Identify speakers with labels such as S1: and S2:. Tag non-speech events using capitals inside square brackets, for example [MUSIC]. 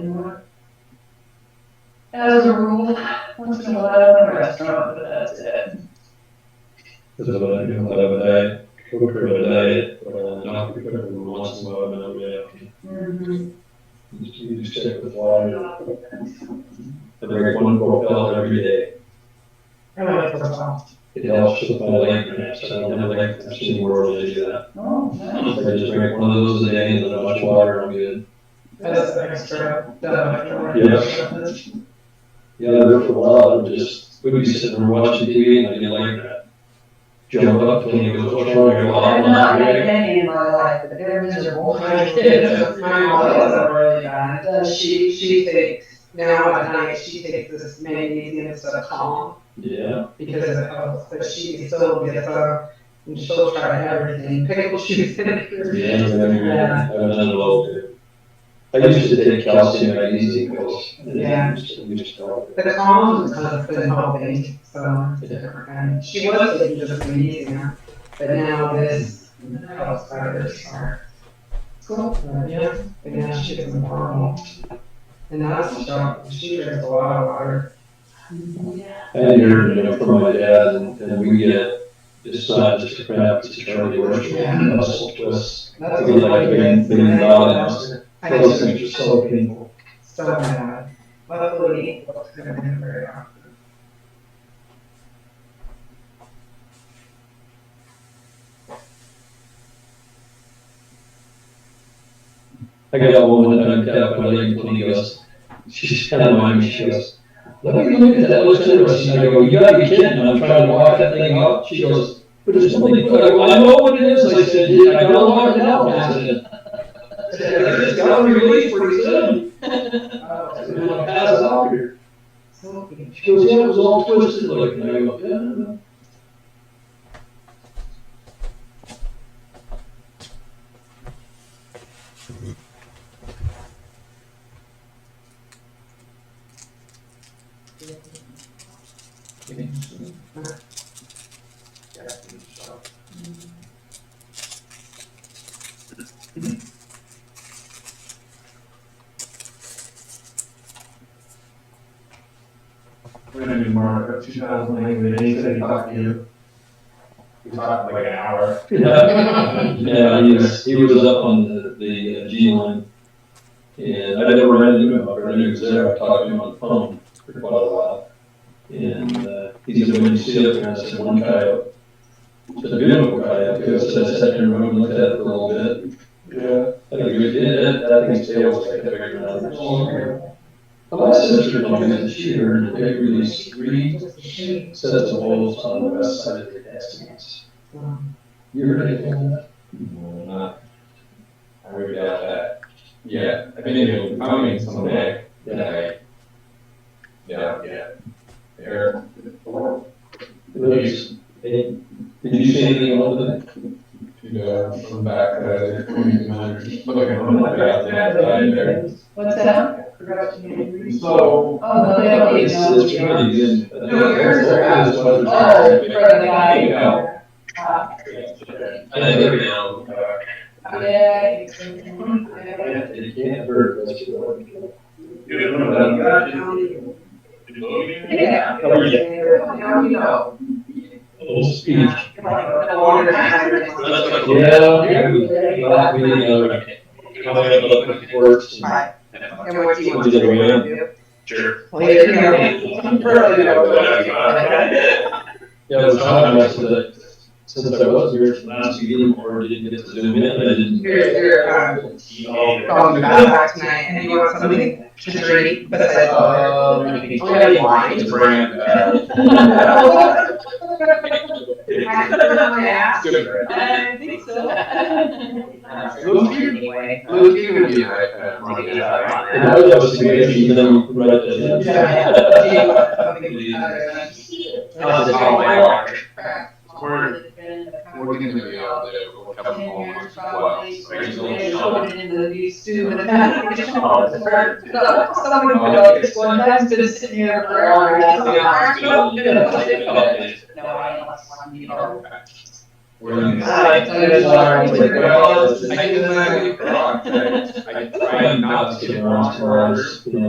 S1: anymore. As a rule, once in a while, I'm in a restaurant, but that's it.
S2: Because of what I do, whatever day, cooker of a day, or not cooker, and once in a while, but yeah, okay.
S1: Mhm.
S2: You just- you just check with water. I drink one quart pill every day.
S1: I like it a lot.
S2: It helps with my length, so I don't have length, in the world to do that.
S1: Oh, nice.
S2: If I just drink one of those a day and then a bunch of water, I'm good.
S1: That's extra, that extra.
S2: Yeah, there for a while, and just, we'd be sitting there watching TV and I'd get like that. Jump up and he goes, what's wrong? I go,
S1: I've
S2: "Oh,
S1: not
S2: I'm
S1: had
S2: ready."
S1: any in my life, but they're
S3: [LAUGHS]
S1: miserable. My kids, my mom doesn't really bad. Does
S3: She, she takes, now at night, she takes this magnesium as a calm
S2: Yeah,
S3: because of the health, but she still gets up and she'll try everything, pickle shoes [LAUGHS] in her.
S2: yeah, I've been, I've done it all. I used to take calcium magnesium pills. and
S3: Yeah.
S2: it just- it just helped.
S3: The calm has been helping, so it's a different kind. She was taking just magnesium, but now this helps her, so.
S1: Cool.
S3: But yeah, but yeah, she gets normal. And that's a shock, she drinks a lot of water.
S2: I hear, you know, from my dad and, and we get, it's not just crap, it's a charity work,
S3: Yeah.
S2: muscle twists.
S3: That's
S2: We
S3: what I
S2: like being,
S3: get.
S2: being dollars.
S3: I get
S2: Those things are so painful.
S3: so bad. Luckily, it wasn't happening very often.
S2: I got one one time tapped my leg and he goes, she's kind of mind me, she goes, let me look at that, looks interesting. I go, you gotta be kidding, and I'm trying to walk that thing out. She goes, but there's something, put- I go, I know what it is. I said, "Yeah, I gotta walk it out. I said, I said, it's gotta be released pretty soon.
S3: Oh,
S2: I said, I'm gonna pass it out here.
S3: So good.
S2: She goes, yeah, it was all twisted looking. I go, yeah, I know."
S4: We're gonna do more of two thousand language, and he said he talked to you. We talked like an hour.
S2: Yeah, yeah, he was, he was up on the, the uh, G line. And I never ran into him, I ran into him there, I talked to him on the phone for quite a while. And, uh, he said, when you see up there, I said, one coyote. It's a beautiful coyote, too." so I sat there and looked at it for a little bit.
S4: Yeah.
S2: I think it, it, that thing's tail was like bigger than others. My sister told me that she heard that they released three sets of wolves on the west side of the Cascades. You heard anything on that?
S4: Not. I heard about that. Yeah, I think it'll be coming someday. Yeah. Yeah, yeah. There.
S2: Those- Did you see anything on the
S4: Yeah, I'm back, uh, twenty minutes. Look, I'm like, yeah, yeah, there.
S1: What's that? Forgot your name.
S4: So.
S1: Oh, no, they don't even
S2: It's,
S1: know who
S2: it's
S1: you are.
S2: really good.
S4: No, yours are absolutely-
S1: Oh, for the guy.
S4: Yeah.
S1: Uh,
S2: I think every now and
S1: Yeah. he's been- yeah.
S2: then, it can't hurt, that's what I think.
S1: Yeah.
S2: Oh, yeah.
S1: Now you know.
S2: A little speech.
S1: Like, the longer time.
S2: Oh, Yeah. Not really, uh, coming up with different words and-
S3: Right. And what do you want
S2: Is it a
S3: to
S2: win?
S3: do?
S5: Sure.
S3: Later, you know, early, you know.
S5: Yeah.
S2: Yeah, it was kind of nice that since I was here from last meeting or didn't get to zoom in, I didn't.
S3: You're- you're, um, Going back tonight, and you want something to drink besides water?
S4: Um,
S3: Oh, yeah, wine.
S4: it's brand, uh,
S3: I put it on my ass.
S4: good, right?
S1: I think so.
S3: Uh, Anyway.
S4: Well, it's gonna be high, uh, running high.
S2: And I was amazed, and then right then.
S3: Yeah. Do you want something other than-
S4: Uh,
S3: Oh, my God.
S4: We're gonna be out there, we'll come home once in a while. so I guess we'll-
S1: Someone would go, this one guy's been sitting here forever.
S3: Yeah.
S1: No, I don't want to, you know.
S4: We're in
S3: I
S4: this.
S3: tell you, it's alright.
S4: Well, it's the same thing that we brought, right? I try not to get wrong orders.
S2: you know,